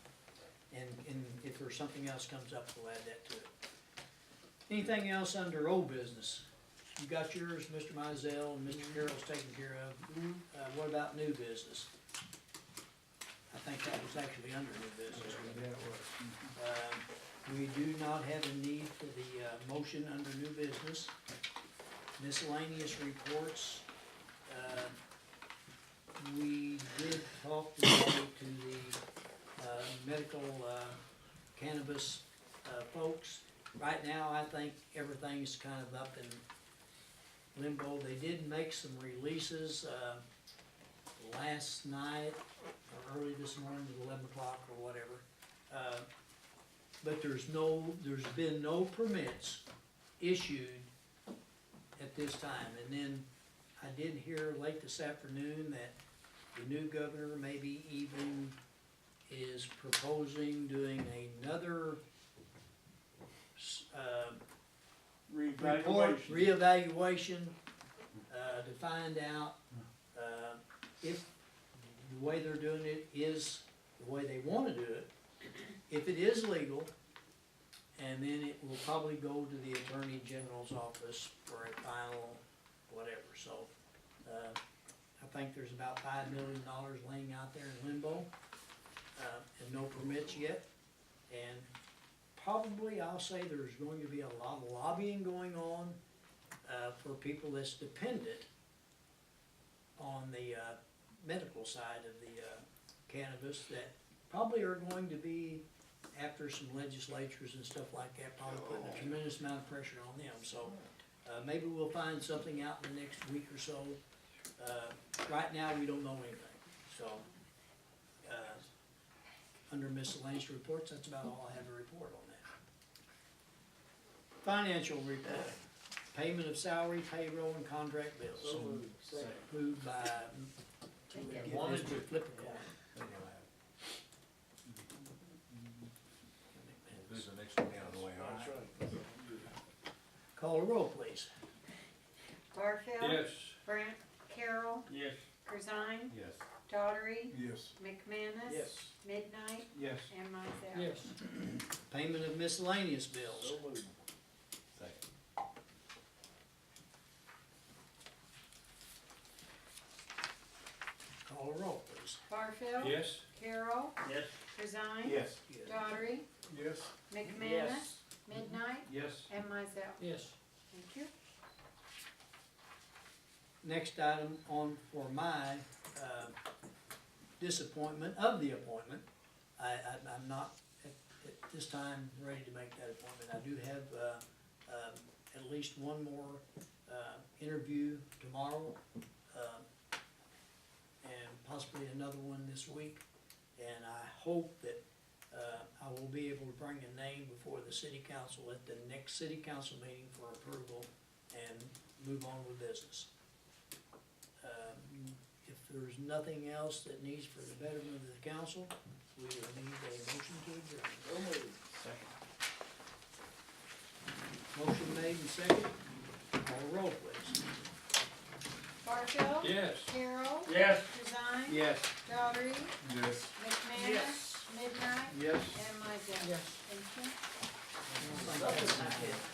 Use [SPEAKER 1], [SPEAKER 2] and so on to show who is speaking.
[SPEAKER 1] if there's something else comes up, we'll add that to it. Anything else under old business? You got yours, Mr. Mizell and Mr. Carroll's taken care of. Uh, what about new business? I think that was actually under new business. Um, We do not have a need for the, uh, motion under new business. Miscellaneous reports, uh, we did talk today to the, uh, medical, uh, cannabis, uh, folks. Right now, I think everything's kind of up in limbo. They did make some releases, uh, last night or early this morning at eleven o'clock or whatever. Uh, But there's no, there's been no permits issued at this time. And then I did hear late this afternoon that the new governor maybe even is proposing doing another s- um, report,
[SPEAKER 2] Reevaluation.
[SPEAKER 1] reevaluation, uh, to find out, uh, if the way they're doing it is the way they wanna do it, if it is legal, and then it will probably go to the Attorney General's office for a final whatever, so, uh, I think there's about five million dollars laying out there in limbo, uh, and no permits yet, and probably, I'll say there's going to be a lot of lobbying going on uh, for people that's dependent on the uh, medical side of the uh, cannabis that probably are going to be, after some legislatures and stuff like that, probably putting a tremendous amount of pressure on them, so uh, maybe we'll find something out in the next week or so. Uh, Right now, we don't know anything, so, uh, under miscellaneous reports, that's about all I have to report on that. Financial report, payment of salary, payroll, and contract bills.
[SPEAKER 2] So moved. Second.
[SPEAKER 1] Moved by, give
[SPEAKER 2] Wanted
[SPEAKER 1] Mr.
[SPEAKER 2] to.
[SPEAKER 1] Flipper coin.
[SPEAKER 3] There's the next one down the way, all right?
[SPEAKER 2] That's right.
[SPEAKER 1] Call the roll, please.
[SPEAKER 4] Barfield.
[SPEAKER 2] Yes.
[SPEAKER 4] Brant. Carol.
[SPEAKER 2] Yes.
[SPEAKER 4] Corzine.
[SPEAKER 3] Yes.
[SPEAKER 4] Daughtery.
[SPEAKER 3] Yes.
[SPEAKER 4] McManus.
[SPEAKER 2] Yes.
[SPEAKER 4] Midnight.
[SPEAKER 2] Yes.
[SPEAKER 4] And myself.
[SPEAKER 1] Payment of miscellaneous bills.
[SPEAKER 2] So moved.
[SPEAKER 3] Second.
[SPEAKER 1] Call the roll, please.
[SPEAKER 4] Barfield.
[SPEAKER 2] Yes.
[SPEAKER 4] Carol.
[SPEAKER 2] Yes.
[SPEAKER 4] Corzine.
[SPEAKER 2] Yes.
[SPEAKER 4] Daughtery.
[SPEAKER 3] Yes.
[SPEAKER 4] McManus. Midnight.
[SPEAKER 2] Yes.
[SPEAKER 4] And myself.
[SPEAKER 1] Yes.
[SPEAKER 4] Thank you.
[SPEAKER 1] Next item on for my uh, disappointment of the appointment, I, I- I'm not at at this time ready to make that appointment. I do have uh, um, at least one more uh, interview tomorrow um, and possibly another one this week. And I hope that uh, I will be able to bring a name before the city council at the next city council meeting for approval and move on with business. Um, If there's nothing else that needs for the betterment of the council, we will need a motion to adjourn.
[SPEAKER 2] So moved.
[SPEAKER 3] Second.
[SPEAKER 1] Motion made and second. Call the roll, please.
[SPEAKER 4] Barfield.
[SPEAKER 2] Yes.
[SPEAKER 4] Carol.
[SPEAKER 2] Yes.
[SPEAKER 4] Corzine.
[SPEAKER 2] Yes.
[SPEAKER 4] Daughtery.
[SPEAKER 3] Yes.
[SPEAKER 4] McManus.
[SPEAKER 2] Yes.
[SPEAKER 4] Midnight.
[SPEAKER 2] Yes.
[SPEAKER 4] And myself. Thank you.
[SPEAKER 1] I don't think that's it.